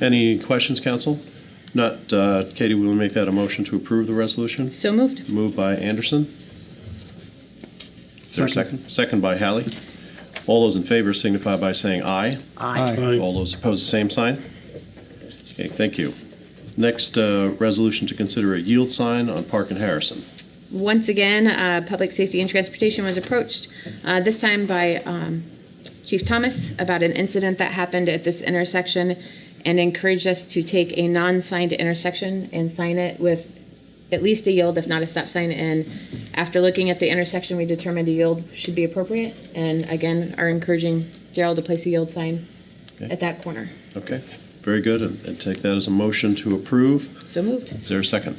Any questions, council? Not, uh, Katie, will you make that a motion to approve the resolution? So moved. Moved by Anderson. Is there a Second. second? Second by Hallie. All those in favor signify by saying aye. Aye. All those opposed, the same sign. Okay, thank you. Next, uh, resolution to consider a yield sign on Park and Harrison. Once again, uh, Public Safety and Transportation was approached, uh, this time by um, Chief Thomas about an incident that happened at this intersection and encouraged us to take a non-signed intersection and sign it with at least a yield, if not a stop sign. And after looking at the intersection, we determined a yield should be appropriate. And again, are encouraging Gerald to place a yield sign Okay. at that corner. Okay, very good, and and take that as a motion to approve. So moved. Is there a second?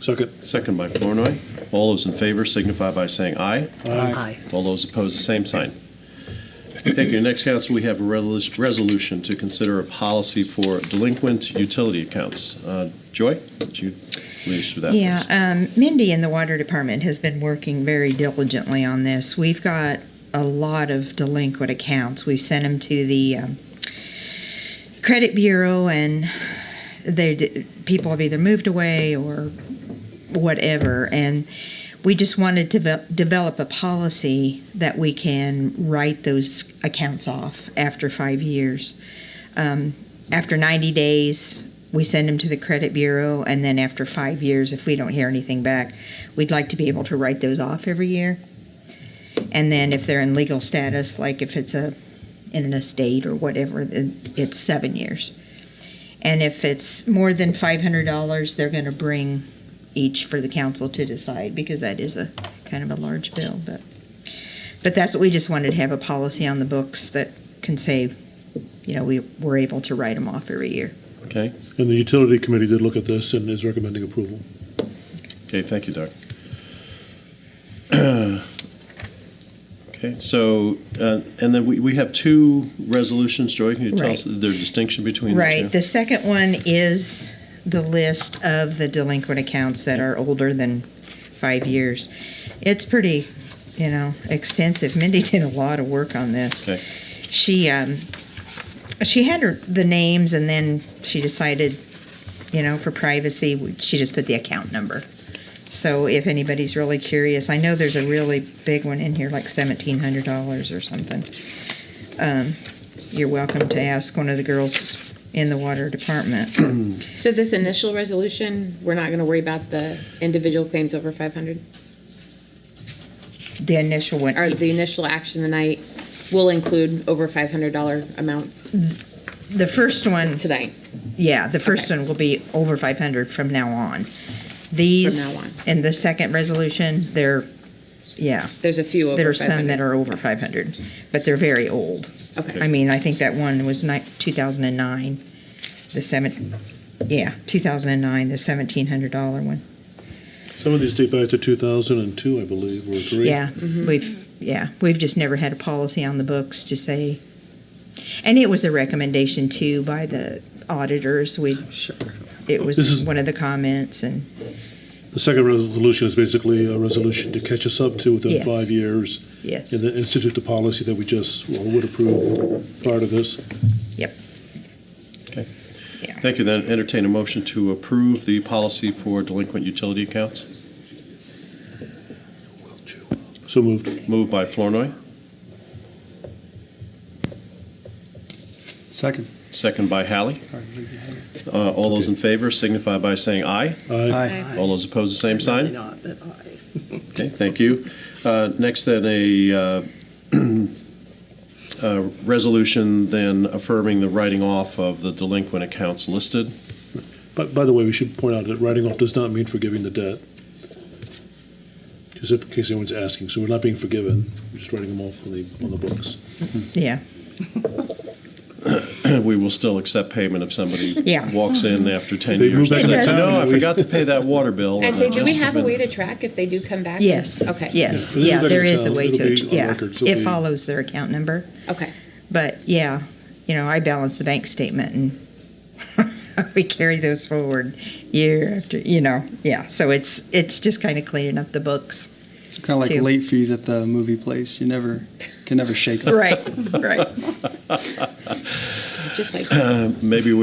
Second. Second by Flornoy. All those in favor signify by saying aye. Aye. All those opposed, the same sign. Thank you. Next, council, we have a resolu- resolution to consider a policy for delinquent utility accounts. Uh, Joy, would you lead us through that? Yeah, please? um, Mindy in the water department has been working very diligently on this. We've got a lot of delinquent accounts. We've sent them to the um, credit bureau, and they d- people have either moved away or whatever. And we just wanted to ve- develop a policy that we can write those accounts off after five years. Um, after 90 days, we send them to the credit bureau, and then after five years, if we don't hear anything back, we'd like to be able to write those off every year. And then if they're in legal status, like if it's a in an estate or whatever, then it's seven years. And if it's more than five hundred dollars, they're going to bring each for the council to decide because that is a kind of a large bill. But but that's what we just wanted to have a policy on the books that can say, you know, we we're able to write them off every year. Okay, And the utility committee did look at this and is recommending approval. okay, thank you, Doug. Okay, so, uh, and then we we have two resolutions. Joy, can you tell us their distinction between the two? Right. The second one is the list of the delinquent accounts that are older than five years. It's pretty, you know, extensive. Mindy did a lot of work on this. Okay. She um, she had her, the names, and then she decided, you know, for privacy, she just put the account number. So if anybody's really curious, I know there's a really big one in here, like seventeen hundred dollars or something. Um, you're welcome to ask one of the girls in the water department. So this initial resolution, we're not going to worry about the individual claims over 500? The initial one, or the initial action tonight will include over $500 amounts Mm-hmm. the first one, tonight. yeah, the first Okay. one will be over five hundred from now on. These From now on. and the second resolution, they're, yeah, There's a few there over are some that 500. are over five hundred, but they're very old. I Okay, mean, I think that one was ni- 2009, the seven, yeah, 2009, the $1,700 one. Some of these date back to 2002, I believe, or three. Yeah, Mm-hmm. we've, yeah, we've just never had a policy on the books to say, and it was a recommendation too by the auditors. We, it This was is- one of the comments and, The second resolution is basically a resolution to catch us up to within Yes. five years yes, and then institute the policy that we just, well, would approve part of this. yep. Okay. Yeah. Thank you. Then entertain a motion to approve the policy for delinquent utility accounts. So moved. Moved by Flornoy, Second. second by Hallie. Uh, All those in favor signify by saying aye. Aye. All those opposed, the same Probably sign. not, but aye. Okay, thank you. Uh, Next, then, a uh, uh, resolution then affirming the writing off of the delinquent accounts listed. But by the way, we should point out that writing off does not mean forgiving the debt. Just in case anyone's asking. So we're not being forgiven. We're just writing them off on the, on the books. Yeah, We will still accept payment if somebody Yeah. walks in after 10 They move years. back and to says, town, No, I we- forgot to pay that water bill. I and say, do we just have a been- way to track if they do come back? yes. Okay. Yes, Yeah. yeah, there is a It'll way be to, on yeah, record, so it we- follows their account number. Okay, But yeah, you know, I balance the bank statement and we carry those forward year after, you know, yeah. So it's it's just kind of cleaning up the books. It's kind of like Two. late fees at the movie place. You never can never shake them. Right, right. just like Maybe we